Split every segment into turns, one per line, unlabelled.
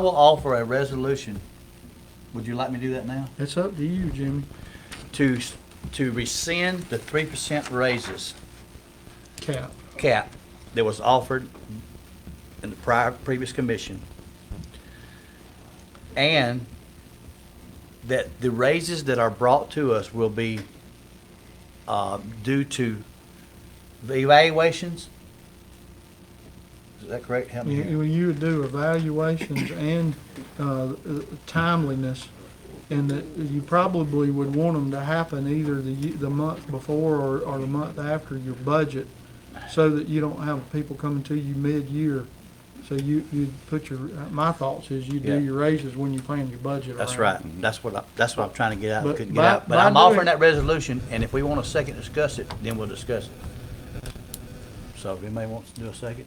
I will offer a resolution. Would you like me to do that now?
It's up to you, Jimmy.
To, s- to rescind the three percent raises
Cap.
cap that was offered in the prior, previous commission. And that the raises that are brought to us will be, uh, due to evaluations? Is that correct? Help me here.
You, you would do evaluations and, uh, timeliness. And that you probably would want them to happen either the, ye- the month before or, or the month after your budget. So that you don't have people coming to you mid-year. So you, you put your, my thoughts is you
Yeah.
do your raises when you plan your budget
That's right.
around.
That's what I, that's what I'm trying to get out,
But
couldn't get
by-
out. But
by
I'm offering
doing-
that resolution, and if we want a second to discuss it, then we'll discuss it. So if anybody wants to do a second?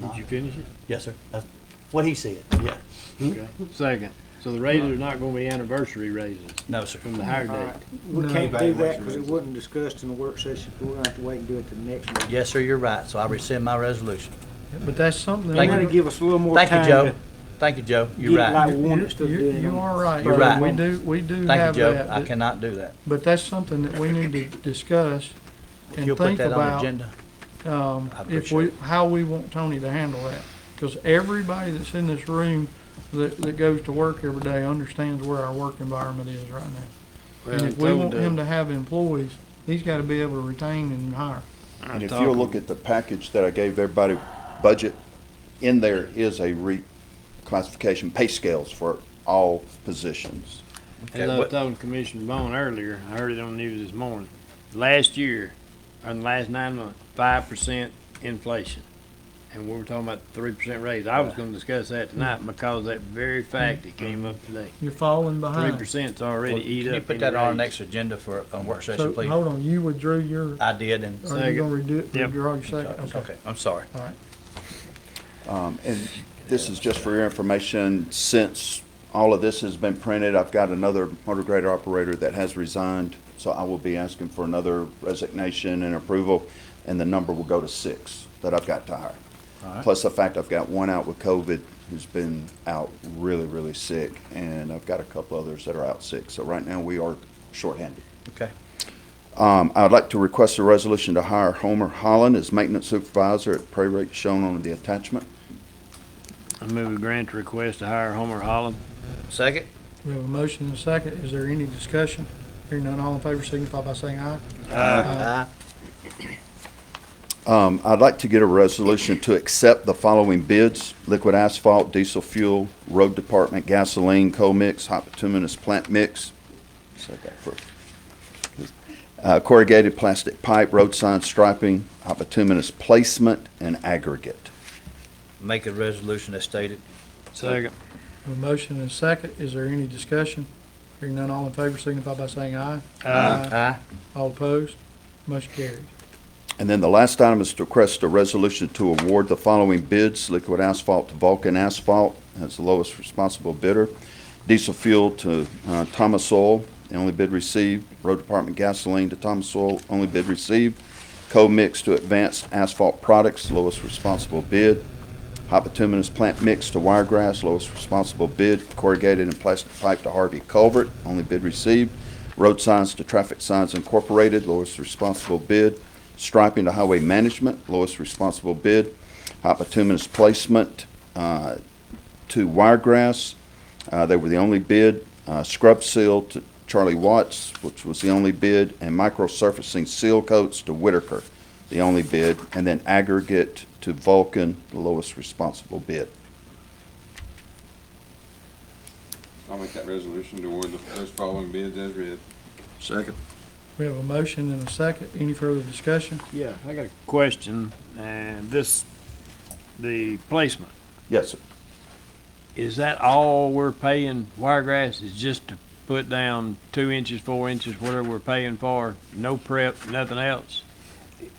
Did you finish it?
Yes, sir. That's what he said, yeah.
Okay. Second, so the raises are not gonna be anniversary raises
No, sir.
from the higher
All
date.
right, we
No.
can't do that because it wasn't discussed in the work session, we're gonna have to wait and do it the next meeting.
Yes, sir, you're right. So I rescind my resolution.
But that's something. that
Thank
You
you.
gotta
we-
give us a little more time.
Thank you, Joe.
to
Thank you, Joe.
get
You're
it like
right.
we want it instead of
You-
doing it
You
on-
are right.
You're right.
We do, we do
Thank
have
you, Joe.
that.
I cannot do that.
But that's something that we need to discuss
If
and
you'll put
think
that on the
about,
agenda.
um,
I
if we,
appreciate
how we want Tony to handle that. Because everybody that's in this room that, that goes to work every day understands where our work environment is right now.
Well,
And
I
if we
told,
want
uh,
him to have employees, he's gotta be able to retain and hire.
I
And if
told
you'll
him-
look at the package that I gave everybody, budget, in there is a reclassification pay scales for all positions.
As I was telling Commissioner Bone earlier, I heard it on the news this morning, last year, or in the last nine months, five percent inflation. And we were talking about three percent raise. I was gonna discuss that
Hmm.
tonight because of that very fact that came up today.
You're falling
Three
behind.
percent's already
Hmm. Can
eat
you
up.
put
any
that on our
raise.
next agenda for, on work
So,
session, please?
hold on, you withdrew your,
I did, and,
are you
Second.
gonna redo it,
Yep.
withdraw your second?
okay, I'm sorry.
All right.
Um, And this is just for your information, since all of this has been printed, I've got another motor grader operator that has resigned, so I will be asking for another resignation and approval, and the number will go to six that I've got to hire. Plus the fact I've got one out with COVID who's been out really, really sick, and I've got a couple others that are out sick. So right now, we are shorthanded.
Okay.
Um, I'd like to request a resolution to hire Homer Holland as maintenance supervisor at pay rate shown on the attachment.
I move a grant to request to hire Homer Holland.
Second?
We have a motion and a second. Is there any discussion? Hearing none, all in favor signify by saying aye. Uh,
Aye.
Um, I'd like to get a resolution to accept the following bids, liquid asphalt, diesel fuel, road department, gasoline, co-mix, hot bituminous plant mix. Said that first. Uh, corrugated plastic pipe, road sign striping, hot bituminous placement, and aggregate.
Make a resolution as stated.
Second.
A motion and a second. Is there any discussion? Hearing none, all in favor signify by saying aye.
Aye.
All opposed? Motion carries.
And then the last item is to request a resolution to award the following bids, liquid asphalt to Vulcan Asphalt, that's the lowest responsible bidder, diesel fuel to uh, Thomas Oil, the only bid received, road department gasoline to Thomas Oil, only bid received, co-mix to Advanced Asphalt Products, lowest responsible bid, hot bituminous plant mix to Wiregrass, lowest responsible bid, corrugated and plastic pipe to Harvey Culvert, only bid received, road signs to Traffic Signs Incorporated, lowest responsible bid, striping to Highway Management, lowest responsible bid, hot bituminous placement uh, to Wiregrass, uh, they were the only bid, uh, scrub seal to Charlie Watts, which was the only bid, and micro surfacing seal coats to Whitaker, the only bid, and then aggregate to Vulcan, the lowest responsible bid.
I'll make that resolution to award the- those following bids as read.
Second.
We have a motion and a second. Any further discussion?
Yeah, I got a question, and this, the placement,
Yes, sir.
is that all we're paying Wiregrass is just to put down two inches, four inches, whatever we're paying for, no prep, nothing else?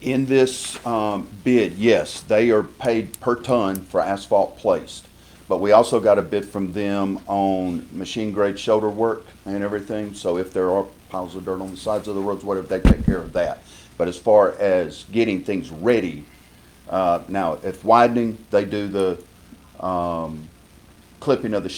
In this um, bid, yes, they are paid per ton for asphalt placed. But we also got a bid from them on machine grade shoulder work and everything. So if there are piles of dirt on the sides of the roads, whatever, they take care of that. But as far as getting things ready, uh, now, if widening, they do the um, clipping of the